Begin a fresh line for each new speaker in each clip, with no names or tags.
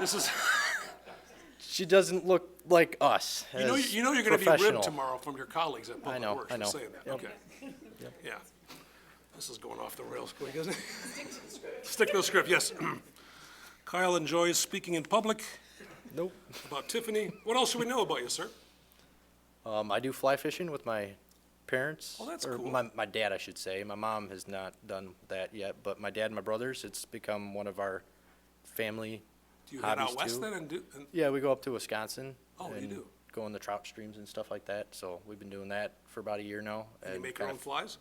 This is,
She doesn't look like us.
you know,
as
you know you're gonna be
professional.
ribbed tomorrow from your colleagues at Public
know,
Works
I
for
know.
saying that,
Yep.
okay. Yeah. This is going off the rails quick, isn't it? Stick to the script, yes. Kyle enjoys speaking in public
Nope.
about Tiffany. What else should we know about you, sir?
Um, I do fly fishing with my parents.
Oh, that's
or
cool.
My, my dad, I should say. My mom has not done that yet, but my dad and my brothers, it's become one of our family
Do you head
hobbies
out west
too.
then and do, and
Yeah, we go up to Wisconsin.
Oh, you
and
do?
Go in the trout streams and stuff like that. So we've been doing that for about a year now.
you make your
kind
own
of-
flies?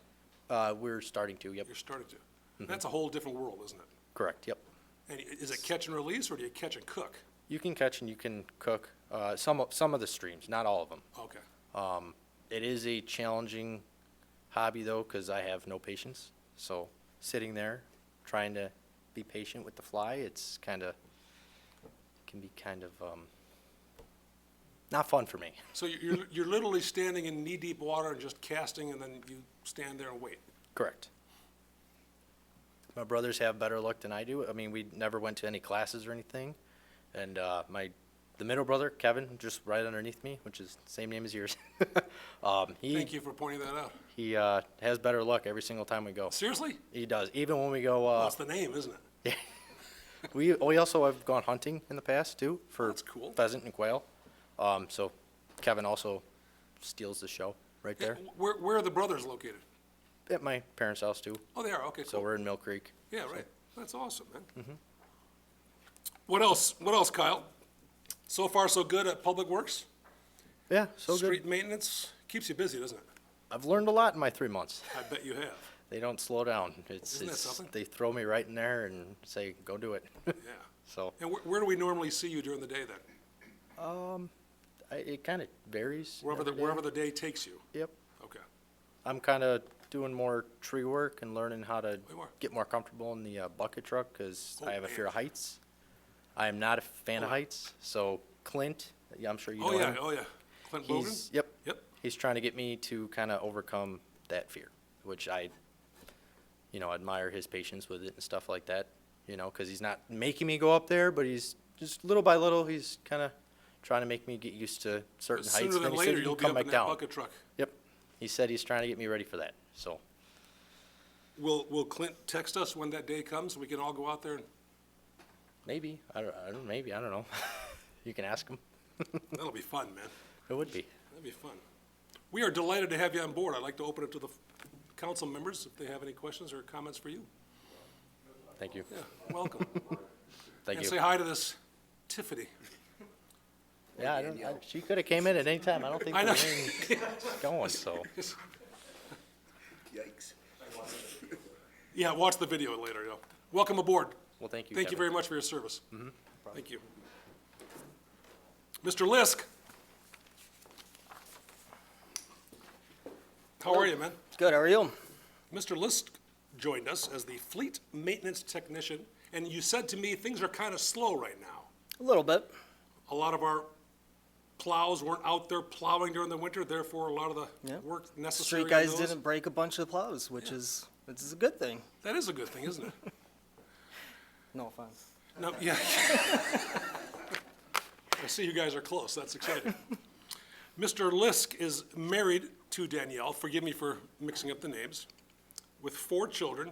Uh, we're starting to. Yep.
You're starting to.
Mm-hmm.
That's a whole different world, isn't it?
Correct. Yep.
And i- is it catch and release or do you catch and cook?
You can catch and you can cook. Uh, some of, some of the streams, not all of them.
Okay.
Um, it is a challenging hobby though, because I have no patience. So sitting there, trying to be patient with the fly, it's kind of can be kind of um, not fun for me.
So you- you're, you're literally standing in knee-deep water and just casting and then you stand there and wait?
Correct. My brothers have better luck than I do. I mean, we never went to any classes or anything, and uh, my the middle brother Kevin, just right underneath me, which is same name as yours. um, he
Thank you for pointing that out.
he uh, has better luck every single time we go.
Seriously?
He does. Even when we go, uh,
That's the name, isn't it?
we we also have gone hunting in the past too for
That's cool.
pheasant and quail. Um, so Kevin also steals the show right there
Where, where are the brothers located?
at my parents' house too.
Oh, they are, okay,
So Mm-hmm.
cool.
we're in Mill Creek.
Yeah, right. That's awesome, man. What else, what else, Kyle? So far, so good at Public Works?
Yeah, so good.
Street maintenance? Keeps you busy, doesn't it?
I've learned a lot in my three months.
I bet you have.
They don't slow down. It's,
Isn't that
it's
something?
they throw me right in there and say, "Go do it."
Yeah.
so
And where, where do we normally see you during the day then?
I, it kind of varies.
Wherever the,
every day.
wherever the day takes you?
Yep.
Okay.
I'm kind of doing more tree work and learning how to
more.
get more comfortable in the uh, bucket truck because
Oh,
I have a fear
man.
of heights. I am not a fan of heights. So Clint, yeah, I'm sure you
Oh,
know
yeah,
him.
oh, yeah. Clint
He's
Bogan?
yep.
Yep.
He's trying to get me to kind of overcome that fear, which I, you know, admire his patience with it and stuff like that. You know, because he's not making me go up there, but he's just little by little, he's kind of trying to make me get used to certain heights.
Sooner
and then
than
he said
later,
you can
you'll be
come
up
back
in that
down.
bucket truck.
Yep. He said he's trying to get me ready for that. So
Will, will Clint text us when that day comes? We can all go out there and,
maybe I don't, I don't maybe I don't know. you can ask him.
that'll be fun, man.
It would be.
That'd be fun. We are delighted to have you on board. I'd like to open it to the f- council members if they have any questions or comments for you.
Thank you.
Yeah, welcome.
Thank
And say
you.
hi to this Tiffany.
Yeah, I don't, I, she could have came in at any time. I don't think
I know.
the rain's going. So
Yikes.
Yeah, watch the video later, yeah. Welcome aboard.
well, thank you.
Thank
Mm-hmm.
you very
Kevin.
much for your service. Thank you. Mr. Lisk. How are you, man?
Good, how are you?
Mr. Lisk joined us as the fleet maintenance technician, and you said to me, things are kind of slow right now.
A little bit.
a lot of our plows weren't out there plowing during the winter, therefore a lot of the
Yeah.
work necessary
Street
on
guys
those.
didn't break a bunch of plows, which is, which is a good thing.
That is a good thing, isn't it?
No offense.
No, yeah. I see you guys are close, that's exciting. Mr. Lisk is married to Danielle, forgive me for mixing up the names, with four children.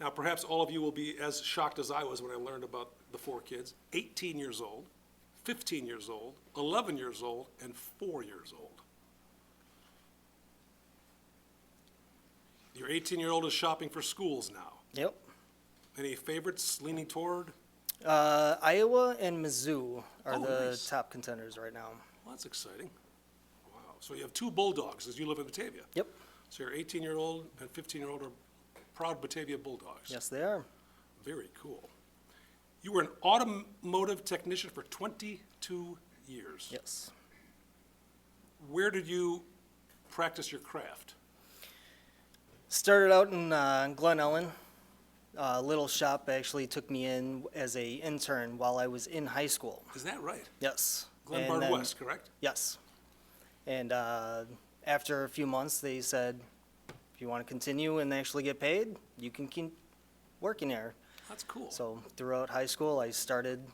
Now perhaps all of you will be as shocked as I was when I learned about the four kids. Eighteen years old, fifteen years old, eleven years old, and four years old. Your eighteen-year-old is shopping for schools now.
Yep.
Any favorites leaning toward?
Uh, Iowa and Mizzou are
Oh,
the
nice.
top contenders right now.
Well, that's exciting. Wow. So you have two bulldogs, as you live in Batavia.
Yep.
So your 18-year-old and 15-year-old are proud Batavia bulldogs.
Yes, they are.
Very cool. You were an automotive technician for 22 years.
Yes.
Where did you practice your craft?
Started out in uh, Glen Ellen. Uh, little shop actually took me in as a intern while I was in high school.
Is that right?
Yes.
Glen
And
Bard
then-
West, correct?
Yes. And uh, after a few months, they said, if you want to continue and actually get paid, you can keep working there.
That's cool.
So throughout high school, I started